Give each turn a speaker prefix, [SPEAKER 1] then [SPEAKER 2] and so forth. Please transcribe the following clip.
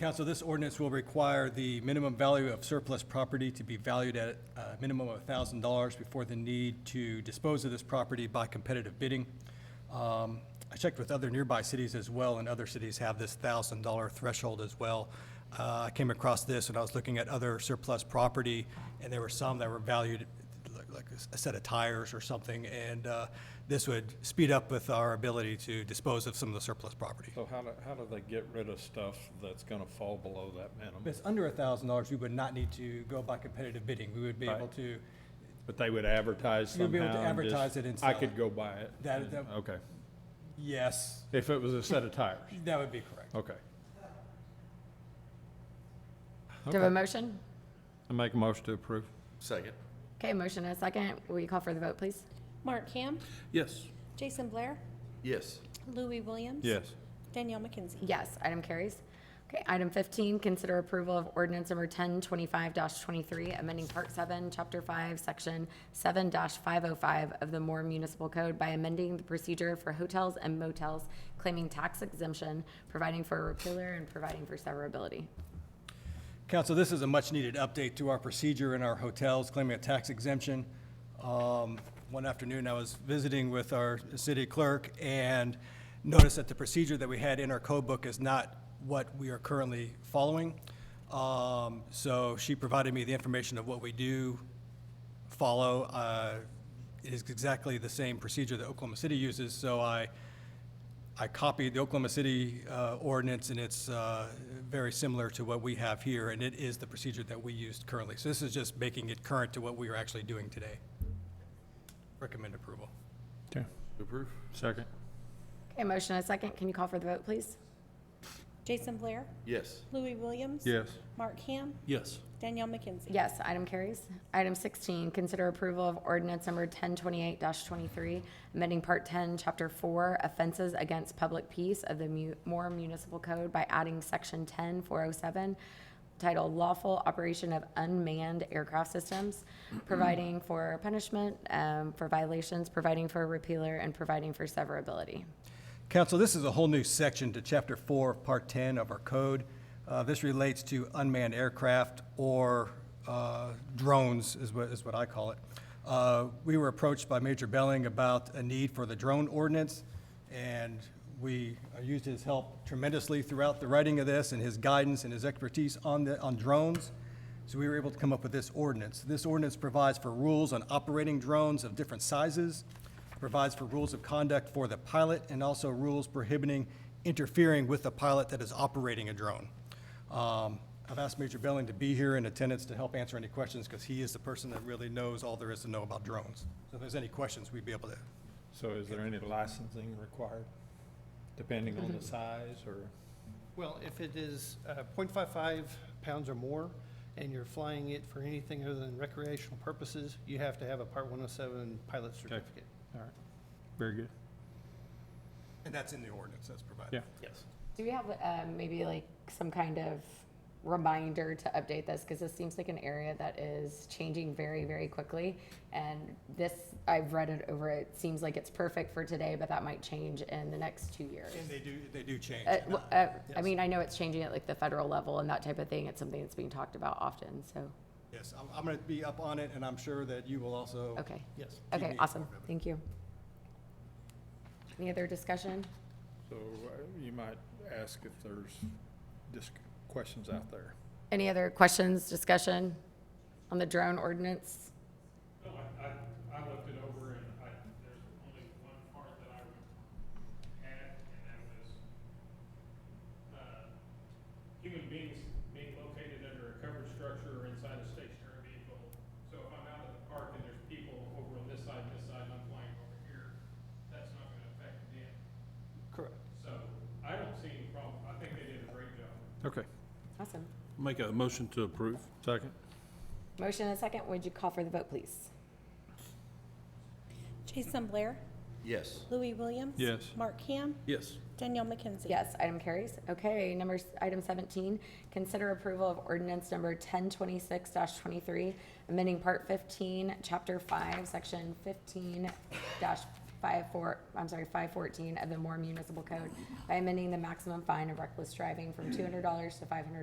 [SPEAKER 1] Council, this ordinance will require the minimum value of surplus property to be valued at a minimum of $1,000 before the need to dispose of this property by competitive bidding. Um, I checked with other nearby cities as well, and other cities have this $1,000 threshold as well. Uh, I came across this when I was looking at other surplus property, and there were some that were valued like- like a s- a set of tires or something, and uh, this would speed up with our ability to dispose of some of the surplus property.
[SPEAKER 2] So how do, how do they get rid of stuff that's gonna fall below that
[SPEAKER 1] If
[SPEAKER 2] minimum?
[SPEAKER 1] it's under a thousand dollars, we would not need to go by competitive bidding. We would be able
[SPEAKER 2] Right.
[SPEAKER 1] to,
[SPEAKER 2] But they would advertise somehow?
[SPEAKER 1] You'd be able to
[SPEAKER 2] and just-
[SPEAKER 1] advertise it and
[SPEAKER 2] I
[SPEAKER 1] sell
[SPEAKER 2] could
[SPEAKER 1] it.
[SPEAKER 2] go buy it?
[SPEAKER 1] That-
[SPEAKER 2] and-
[SPEAKER 1] that-
[SPEAKER 2] Okay,
[SPEAKER 1] yes,
[SPEAKER 2] if it was a set of tires,
[SPEAKER 1] that would be correct.
[SPEAKER 2] okay.
[SPEAKER 3] Do we have a
[SPEAKER 2] Okay.
[SPEAKER 3] motion?
[SPEAKER 2] I make a motion to approve?
[SPEAKER 4] Second.
[SPEAKER 3] Okay, motion and a second. Will you call for the vote, please?
[SPEAKER 5] Mark Ham,
[SPEAKER 2] Yes.
[SPEAKER 5] Jason Blair,
[SPEAKER 4] Yes.
[SPEAKER 5] Louis Williams.
[SPEAKER 2] Yes.
[SPEAKER 5] Danielle McKenzie.
[SPEAKER 3] Yes, item carries. Okay, item fifteen, consider approval of ordinance number ten twenty-five twenty-three, amending part seven, chapter five, section seven five oh five of the Moore Municipal Code by amending the procedure for hotels and motels claiming tax exemption, providing for a repealer and providing for severability.
[SPEAKER 1] Council, this is a much-needed update to our procedure in our hotels claiming a tax exemption. Um, One afternoon, I was visiting with our city clerk and noticed that the procedure that we had in our code book is not what we are currently following. Um, So she provided me the information of what we do follow. Uh, It is exactly the same procedure that Oklahoma City uses, so I I copied the Oklahoma City uh, ordinance, and it's uh, very similar to what we have here, and it is the procedure that we used currently. So this is just making it current to what we are actually doing today. Recommend approval.
[SPEAKER 2] Okay.
[SPEAKER 4] Approve?
[SPEAKER 2] Second?
[SPEAKER 3] Okay, motion and a second. Can you call for the vote, please?
[SPEAKER 5] Jason Blair,
[SPEAKER 4] Yes.
[SPEAKER 5] Louis Williams.
[SPEAKER 2] Yes.
[SPEAKER 5] Mark Ham,
[SPEAKER 2] Yes.
[SPEAKER 5] Danielle McKenzie.
[SPEAKER 3] Yes, item carries. Item 16, consider approval of ordinance number 1028-23, amending Part 10, Chapter 4, offenses against public peace of the Mu- Moore Municipal Code by adding Section 10407, titled Lawful Operation of Unmanned Aircraft Systems, providing for punishment um, for violations, providing for a repealer, and providing for severability.
[SPEAKER 1] Council, this is a whole new section to Chapter 4, Part 10 of our code. Uh, This relates to unmanned aircraft or uh, drones, is what, is what I call it. Uh, We were approached by Major Belling about a need for the drone ordinance, and we uh, used his help tremendously throughout the writing of this and his guidance and his expertise on the, on drones. So we were able to come up with this ordinance. This ordinance provides for rules on operating drones of different sizes, provides for rules of conduct for the pilot, and also rules prohibiting interfering with the pilot that is operating a drone. Um, I've asked Major Belling to be here in attendance to help answer any questions, because he is the person that really knows all there is to know about drones. So if there's any questions, we'd be able to.
[SPEAKER 2] So is there any licensing required, depending on
[SPEAKER 1] Mm-hmm.
[SPEAKER 2] the size, or?
[SPEAKER 6] Well, if it is uh, .55 pounds or more, and you're flying it for anything other than recreational purposes, you have to have a Part 107 pilot certificate.
[SPEAKER 2] All right, very good.
[SPEAKER 1] And that's in the ordinance that's provided.
[SPEAKER 2] Yeah.
[SPEAKER 6] Yes.
[SPEAKER 3] Do we have um, maybe like some kind of reminder to update this? Because this seems like an area that is changing very, very quickly. And this, I've read it over, it seems like it's perfect for today, but that might change in the next two years.
[SPEAKER 1] And they do, they do change.
[SPEAKER 3] Uh, w- uh, I mean, I know it's changing at like the federal level and that type of thing. It's something that's being talked about often, so,
[SPEAKER 1] Yes, I'm, I'm going to be up on it, and I'm sure that you will also.
[SPEAKER 3] okay.
[SPEAKER 6] Yes.
[SPEAKER 3] Okay,
[SPEAKER 1] me
[SPEAKER 3] awesome,
[SPEAKER 1] informed of it.
[SPEAKER 3] thank you. Any other discussion?
[SPEAKER 2] So uh, you might ask if there's just questions out there.
[SPEAKER 3] Any other questions, discussion on the drone ordinance?
[SPEAKER 7] No, I, I, I looked it over and I, there's only one part that I would add, and that was, uh, human beings being located under a covered structure or inside a stationary vehicle. So if I'm out at the park and there's people over on this side, and this side, and I'm flying over here, that's not gonna affect them.
[SPEAKER 6] Correct.
[SPEAKER 7] So I don't see any problem. I think they did a great job.
[SPEAKER 2] Okay.
[SPEAKER 3] Awesome.
[SPEAKER 8] Make a motion to approve.
[SPEAKER 2] Second?
[SPEAKER 3] Motion and a second. Would you call for the vote, please?
[SPEAKER 5] Jason Blair,
[SPEAKER 4] Yes.
[SPEAKER 5] Louis Williams.
[SPEAKER 2] Yes.
[SPEAKER 5] Mark Ham,
[SPEAKER 8] Yes.
[SPEAKER 5] Danielle McKenzie.
[SPEAKER 3] Yes, item carries. Okay, number, item seventeen, consider approval of ordinance number ten twenty-six twenty-three, amending part fifteen, chapter five, section fifteen dash five four, I'm sorry, five fourteen of the Moore Municipal Code by amending the maximum fine of reckless driving from two hundred dollars to five hundred